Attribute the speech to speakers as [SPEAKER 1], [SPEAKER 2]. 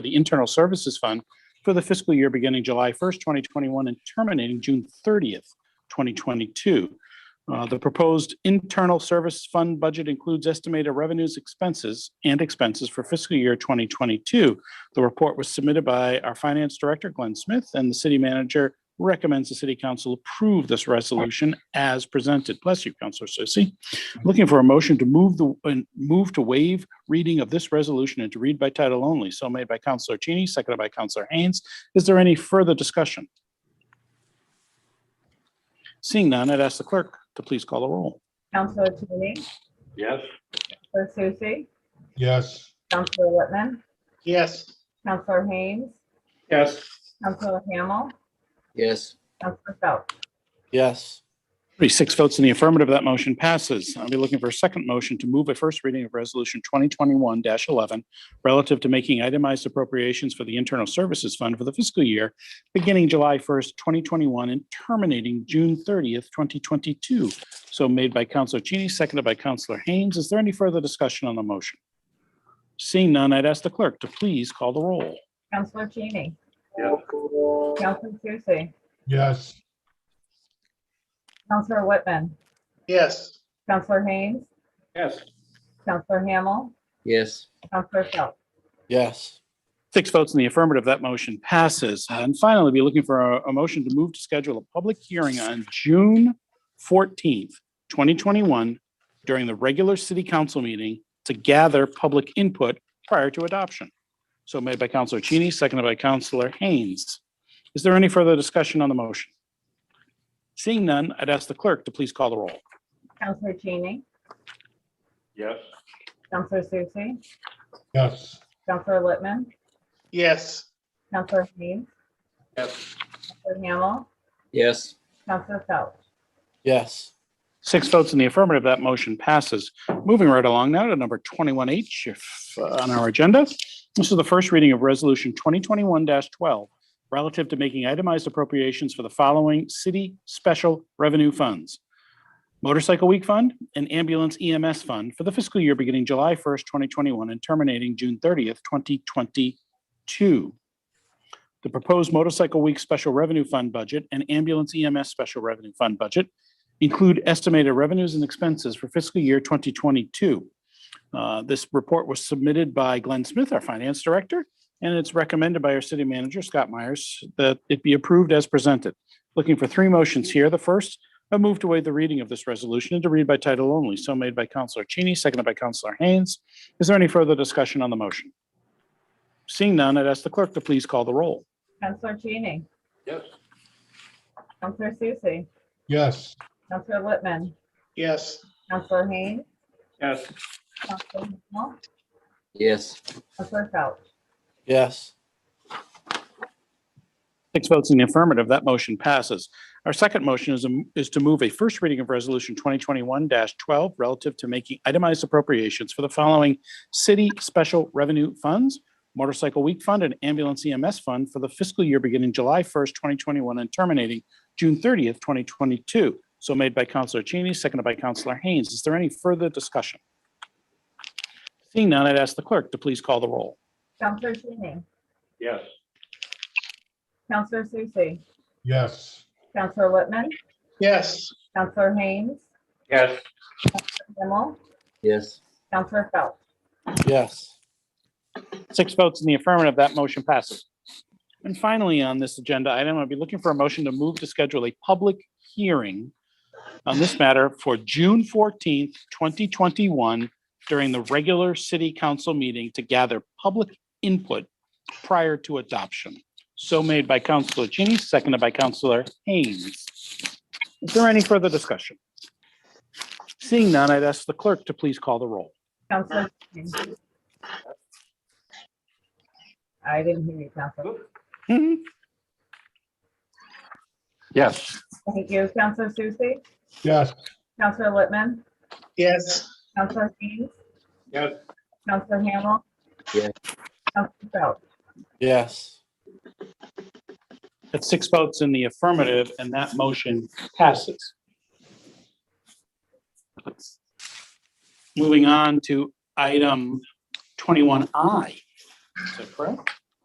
[SPEAKER 1] the Internal Services Fund for the fiscal year beginning July 1st, 2021 and terminating June 30th, 2022. Uh, The proposed Internal Service Fund budget includes estimated revenues, expenses, and expenses for fiscal year 2022. The report was submitted by our Finance Director, Glenn Smith, and the City Manager recommends the City Council approve this resolution as presented. Bless you, Counselor Susie. Looking for a motion to move the, and move to waive reading of this resolution and to read by title only. So made by Counselor Cheney, seconded by Counselor Haynes. Is there any further discussion? Seeing none, I'd ask the clerk to please call the roll.
[SPEAKER 2] Counselor Cheney,
[SPEAKER 3] Yes.
[SPEAKER 2] Counselor Susie,
[SPEAKER 4] Yes.
[SPEAKER 2] Counselor Whitman,
[SPEAKER 4] Yes.
[SPEAKER 2] Counselor Haynes,
[SPEAKER 4] Yes.
[SPEAKER 2] Counselor Hamel,
[SPEAKER 5] Yes.
[SPEAKER 2] Counselor Phelps.
[SPEAKER 5] Yes.
[SPEAKER 1] Three, six votes in the affirmative, that motion passes. I'll be looking for a second motion to move a first reading of Resolution 2021-11 relative to making itemized appropriations for the Internal Services Fund for the fiscal year beginning July 1st, 2021 and terminating June 30th, 2022. So made by Counselor Cheney, seconded by Counselor Haynes. Is there any further discussion on the motion? Seeing none, I'd ask the clerk to please call the roll.
[SPEAKER 2] Counselor Cheney,
[SPEAKER 3] Yes.
[SPEAKER 2] Counselor Susie,
[SPEAKER 4] Yes.
[SPEAKER 2] Counselor Whitman,
[SPEAKER 4] Yes.
[SPEAKER 2] Counselor Haynes,
[SPEAKER 3] Yes.
[SPEAKER 2] Counselor Hamel,
[SPEAKER 5] Yes.
[SPEAKER 2] Counselor Phelps.
[SPEAKER 5] Yes.
[SPEAKER 1] Six votes in the affirmative, that motion passes. Uh, And finally, be looking for a, a motion to move to schedule a public hearing on June fourteenth, twenty twenty-one, during the regular city council meeting to gather public input prior to adoption. So made by Counselor Cheney, seconded by Counselor Haynes. Is there any further discussion on the motion? Seeing none, I'd ask the clerk to please call the roll.
[SPEAKER 2] Counselor Cheney,
[SPEAKER 3] Yes.
[SPEAKER 2] Counselor Susie,
[SPEAKER 4] Yes.
[SPEAKER 2] Counselor Whitman,
[SPEAKER 4] Yes.
[SPEAKER 2] Counselor Haynes,
[SPEAKER 3] Yes.
[SPEAKER 2] Counselor Hamel,
[SPEAKER 5] Yes.
[SPEAKER 2] Counselor Phelps.
[SPEAKER 5] Yes.
[SPEAKER 1] Six votes in the affirmative, that motion passes. Moving right along now to number 21H if, uh, on our agenda. This is the first reading of Resolution 2021-12 relative to making itemized appropriations for the following city special revenue funds. Motorcycle Week Fund and Ambulance EMS Fund for the fiscal year beginning July 1st, 2021 and terminating June 30th, 2022. The proposed Motorcycle Week Special Revenue Fund budget and Ambulance EMS Special Revenue Fund budget include estimated revenues and expenses for fiscal year 2022. Uh, This report was submitted by Glenn Smith, our finance director, and it's recommended by our city manager, Scott Myers, that it be approved as presented. Looking for three motions here. The first, a move to waive the reading of this resolution and to read by title only. So made by Counselor Cheney, seconded by Counselor Haynes. Is there any further discussion on the motion? Seeing none, I'd ask the clerk to please call the roll.
[SPEAKER 2] Counselor Cheney,
[SPEAKER 3] Yes.
[SPEAKER 2] Counselor Susie,
[SPEAKER 4] Yes.
[SPEAKER 2] Counselor Whitman,
[SPEAKER 4] Yes.
[SPEAKER 2] Counselor Haynes,
[SPEAKER 3] Yes.
[SPEAKER 2] Counselor Hamel,
[SPEAKER 5] Yes.
[SPEAKER 2] Counselor Phelps.
[SPEAKER 5] Yes.
[SPEAKER 1] Six votes in the affirmative, that motion passes. Our second motion is, a- is to move a first reading of Resolution 2021-12 relative to making itemized appropriations for the following city special revenue funds, Motorcycle Week Fund and Ambulance EMS Fund for the fiscal year beginning July 1st, 2021 and terminating June 30th, 2022. So made by Counselor Cheney, seconded by Counselor Haynes. Is there any further discussion? Seeing none, I'd ask the clerk to please call the roll.
[SPEAKER 2] Counselor Cheney,
[SPEAKER 3] Yes.
[SPEAKER 2] Counselor Susie,
[SPEAKER 4] Yes.
[SPEAKER 2] Counselor Whitman,
[SPEAKER 4] Yes.
[SPEAKER 2] Counselor Haynes,
[SPEAKER 3] Yes.
[SPEAKER 2] Hamel,
[SPEAKER 5] Yes.
[SPEAKER 2] Counselor Phelps.
[SPEAKER 5] Yes.
[SPEAKER 1] Six votes in the affirmative, that motion passes. And finally, on this agenda item, I'd be looking for a motion to move to schedule a public hearing on this matter for June fourteenth, twenty twenty-one, during the regular city council meeting to gather public input prior to adoption. So made by Councilor Cheney, seconded by Councilor Haynes. Is there any further discussion? Seeing none, I'd ask the clerk to please call the roll.
[SPEAKER 2] Counselor Cheney. I didn't hear you, Counselor.
[SPEAKER 3] Yes.
[SPEAKER 2] Thank you. Counselor Susie,
[SPEAKER 4] Yes.
[SPEAKER 2] Counselor Whitman,
[SPEAKER 4] Yes.
[SPEAKER 2] Counselor Haynes,
[SPEAKER 3] Yes.
[SPEAKER 2] Counselor Hamel.
[SPEAKER 5] Yes.
[SPEAKER 2] Counselor Phelps.
[SPEAKER 5] Yes.
[SPEAKER 1] That's six votes in the affirmative, and that motion passes. Moving on to item 21I. Is that correct?